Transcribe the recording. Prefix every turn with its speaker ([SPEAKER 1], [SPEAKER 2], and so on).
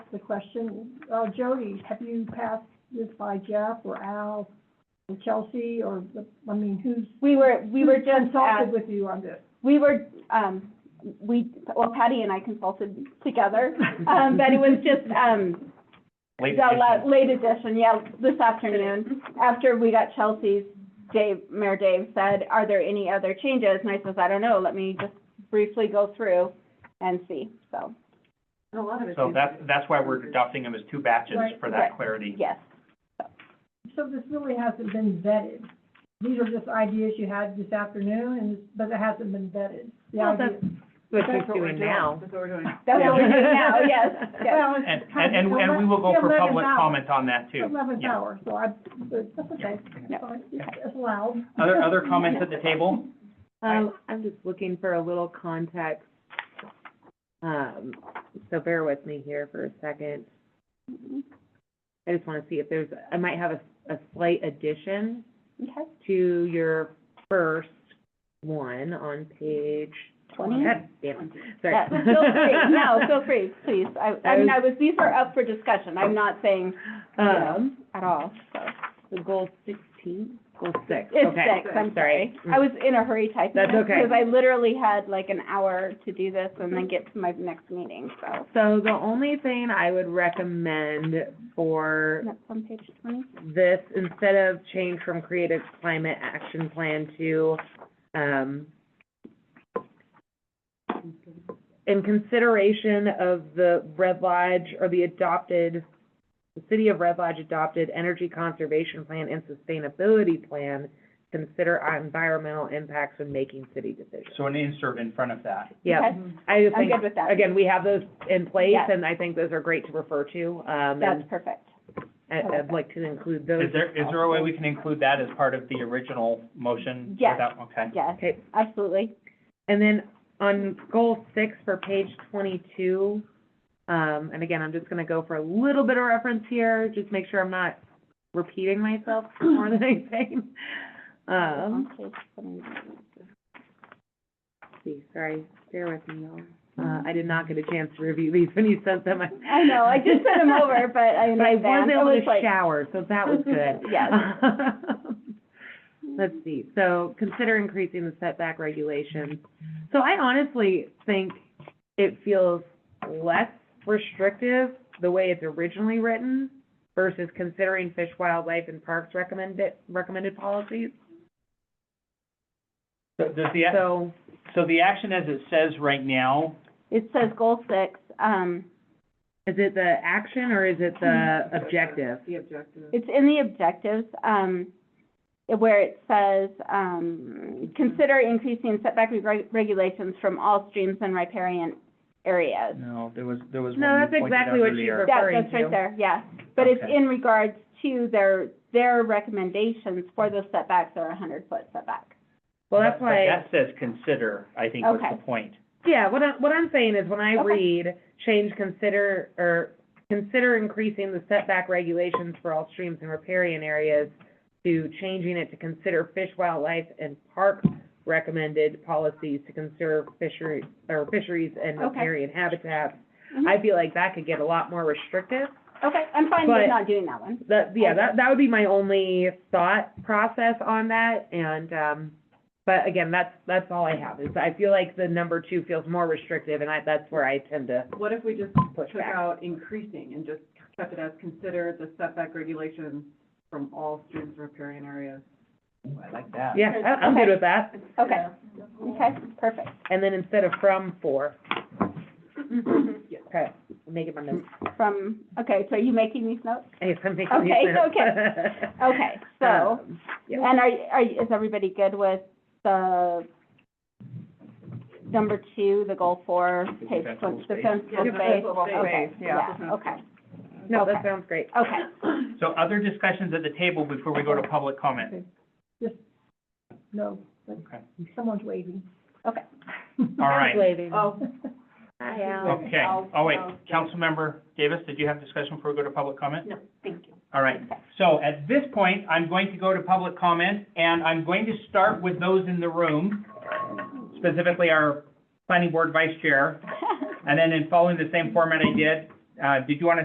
[SPEAKER 1] the question, uh, Jody, have you passed this by Jeff or Al or Chelsea or, the- I mean, who's?
[SPEAKER 2] We were, we were
[SPEAKER 1] who's
[SPEAKER 2] just
[SPEAKER 1] Consulted
[SPEAKER 2] asked,
[SPEAKER 1] with you on this.
[SPEAKER 2] we were, um, we, well, Patty and I consulted together, um, but it was just, um,
[SPEAKER 3] Late
[SPEAKER 2] the la-
[SPEAKER 3] edition.
[SPEAKER 2] late edition, yeah, this afternoon, after we got Chelsea's, Dave, Mayor Dave said, are there any other changes? And I says, I don't know, let me just briefly go through and see, so,
[SPEAKER 4] And a lot of it's.
[SPEAKER 3] So that's, that's why we're adopting them as two batches
[SPEAKER 1] Right.
[SPEAKER 3] for
[SPEAKER 2] Right.
[SPEAKER 3] that clarity.
[SPEAKER 2] yes.
[SPEAKER 1] So this really hasn't been vetted. These are just ideas you had this afternoon and, but it hasn't been vetted. The
[SPEAKER 4] Well,
[SPEAKER 1] idea-
[SPEAKER 5] Which
[SPEAKER 4] That's what
[SPEAKER 5] we're
[SPEAKER 4] we're
[SPEAKER 5] doing now.
[SPEAKER 4] That's what we're doing.
[SPEAKER 2] That's what we're doing now, yes, yes.
[SPEAKER 1] Well, it's
[SPEAKER 3] And,
[SPEAKER 1] kind
[SPEAKER 3] and,
[SPEAKER 1] of
[SPEAKER 3] and
[SPEAKER 1] the
[SPEAKER 3] and we will go
[SPEAKER 1] ele-
[SPEAKER 3] for
[SPEAKER 1] the 11th
[SPEAKER 3] public
[SPEAKER 1] hour.
[SPEAKER 3] comment on that too.
[SPEAKER 1] Eleventh
[SPEAKER 3] Yeah.
[SPEAKER 1] hour, so I, but that's okay.
[SPEAKER 2] Yeah.
[SPEAKER 1] Fine. It's it's allowed.
[SPEAKER 3] Other, other comments at the table?
[SPEAKER 5] Um, I'm just looking for a little context. Um, so bear with me here for a second. I just want to see if there's, I might have a, a slight addition
[SPEAKER 2] Okay,
[SPEAKER 5] to your first one on page.
[SPEAKER 2] twenty?
[SPEAKER 5] God damn it, sorry.
[SPEAKER 2] Yeah, feel free, no, feel free, please. I, I mean, I was, these are up for discussion. I'm not saying
[SPEAKER 5] Um,
[SPEAKER 2] at all, so.
[SPEAKER 5] the goal sixteen, goal six, okay.
[SPEAKER 2] It's six, I'm sorry. I was in a hurry typing.
[SPEAKER 5] That's
[SPEAKER 2] this,
[SPEAKER 5] okay.
[SPEAKER 2] Because I literally had like an hour to do this and then get to my next meeting, so.
[SPEAKER 5] Mm. So the only thing I would recommend for
[SPEAKER 2] That's on page twenty?
[SPEAKER 5] this, instead of change from creative climate action plan to, um, in consideration of the Red Lodge or the adopted, the city of Red Lodge adopted energy conservation plan and sustainability plan, consider environmental impacts when making city decisions.
[SPEAKER 3] So an insert in front of that.
[SPEAKER 5] Yep.
[SPEAKER 2] Okay,
[SPEAKER 5] I
[SPEAKER 2] I'm
[SPEAKER 5] think,
[SPEAKER 2] good with that.
[SPEAKER 5] again, we have those in place
[SPEAKER 2] Yes.
[SPEAKER 5] and I think those are great to refer to, um,
[SPEAKER 2] That's
[SPEAKER 5] and
[SPEAKER 2] perfect.
[SPEAKER 5] I- I'd like to include those.
[SPEAKER 3] Is there, is there a way we can include that as part of the original motion?
[SPEAKER 2] Yes.
[SPEAKER 3] without- Okay.
[SPEAKER 2] Yes,
[SPEAKER 5] Okay,
[SPEAKER 2] absolutely.
[SPEAKER 5] And then on goal six for page twenty-two, um, and again, I'm just gonna go for a little bit of reference here, just make sure I'm not repeating myself more than anything. Um,
[SPEAKER 2] On page 20.
[SPEAKER 5] let's see, sorry, bear with me, y'all. Uh, I did not get a chance to review these when you sent them.
[SPEAKER 2] I know, I just sent them over, but I
[SPEAKER 5] But I was
[SPEAKER 2] understand. It
[SPEAKER 5] able
[SPEAKER 2] was
[SPEAKER 5] to
[SPEAKER 2] like-
[SPEAKER 5] shower, so that was good.
[SPEAKER 2] Yes.
[SPEAKER 5] Let's see, so consider increasing the setback regulations. So I honestly think it feels less restrictive the way it's originally written versus considering fish, wildlife, and parks recommended, recommended policies.
[SPEAKER 3] So does the, ac-
[SPEAKER 5] So
[SPEAKER 3] so the action as it says right now,
[SPEAKER 2] It says goal six, um,
[SPEAKER 5] is it the action or is it the
[SPEAKER 2] Mm-hmm.
[SPEAKER 5] objective?
[SPEAKER 4] The objective.
[SPEAKER 2] It's in the objectives, um, where it says, um, consider increasing setback reg- regulations from all streams and riparian areas.
[SPEAKER 3] no, there was, there was one
[SPEAKER 5] No,
[SPEAKER 3] you
[SPEAKER 5] that's
[SPEAKER 3] pointed
[SPEAKER 5] exactly
[SPEAKER 3] out
[SPEAKER 5] what she
[SPEAKER 3] earlier.
[SPEAKER 5] wrote.
[SPEAKER 2] That,
[SPEAKER 5] Referring
[SPEAKER 2] that's right
[SPEAKER 5] to.
[SPEAKER 2] there, yeah. But it's
[SPEAKER 3] Okay.
[SPEAKER 2] in regards to their, their recommendations for those setbacks are a hundred foot setback.
[SPEAKER 5] Well, that's
[SPEAKER 3] But
[SPEAKER 5] why.
[SPEAKER 3] That says consider, I think was the
[SPEAKER 2] Okay.
[SPEAKER 3] point.
[SPEAKER 5] Yeah, what I, what I'm saying is when I
[SPEAKER 2] Okay.
[SPEAKER 5] read change consider, or consider increasing the setback regulations for all streams and riparian areas to changing it to consider fish, wildlife, and park recommended policies to conserve fishery, or fisheries and
[SPEAKER 2] Okay.
[SPEAKER 5] riparian habitats.
[SPEAKER 2] Mhm.
[SPEAKER 5] I feel like that could get a lot more restrictive.
[SPEAKER 2] Okay, I'm fine with
[SPEAKER 5] But-
[SPEAKER 2] not doing that one.
[SPEAKER 5] That, yeah,
[SPEAKER 2] Okay.
[SPEAKER 5] that, that would be my only thought process on that, and, um, but again, that's, that's all I have, is I feel like the number two feels more restrictive, and I, that's where I tend to
[SPEAKER 4] What if we just
[SPEAKER 5] push
[SPEAKER 4] took
[SPEAKER 5] back.
[SPEAKER 4] out increasing and just kept it as consider the setback regulation from all streams or riparian areas?
[SPEAKER 3] Ooh, I like that.
[SPEAKER 5] Yeah, I- I'm good
[SPEAKER 2] Okay.
[SPEAKER 5] with that,
[SPEAKER 2] Okay, okay, perfect.
[SPEAKER 5] and then instead of from, for,
[SPEAKER 4] Yeah.
[SPEAKER 5] okay, make it my notes,
[SPEAKER 2] From, okay, so are you making these notes?
[SPEAKER 5] Hey, I'm making these
[SPEAKER 2] Okay,
[SPEAKER 5] notes.
[SPEAKER 2] Okay, so.
[SPEAKER 5] Um,
[SPEAKER 2] And are, are, is everybody good with the number two, the goal four,
[SPEAKER 3] The
[SPEAKER 2] page
[SPEAKER 3] defensible
[SPEAKER 2] twenty,
[SPEAKER 3] space.
[SPEAKER 4] Yeah,
[SPEAKER 2] defensible space?
[SPEAKER 4] defensible
[SPEAKER 2] Okay,
[SPEAKER 4] space, yeah.
[SPEAKER 2] yeah, okay,
[SPEAKER 5] No, that
[SPEAKER 2] okay.
[SPEAKER 5] sounds great.
[SPEAKER 2] okay.
[SPEAKER 3] So other discussions at the table before we go to public comment?
[SPEAKER 1] No, but
[SPEAKER 3] Okay.
[SPEAKER 1] someone's waving.
[SPEAKER 2] Okay.
[SPEAKER 3] All right.
[SPEAKER 5] Waving.
[SPEAKER 4] Oh,
[SPEAKER 5] Hi, Al.
[SPEAKER 3] Okay, oh wait, Councilmember Davis, did you have discussion before we go to public comment?
[SPEAKER 4] no, thank you.
[SPEAKER 3] All right, so at this point, I'm going to go to public comment, and I'm going to start with those in the room, specifically our planning board vice chair, and then in following the same format I did, uh, did you want to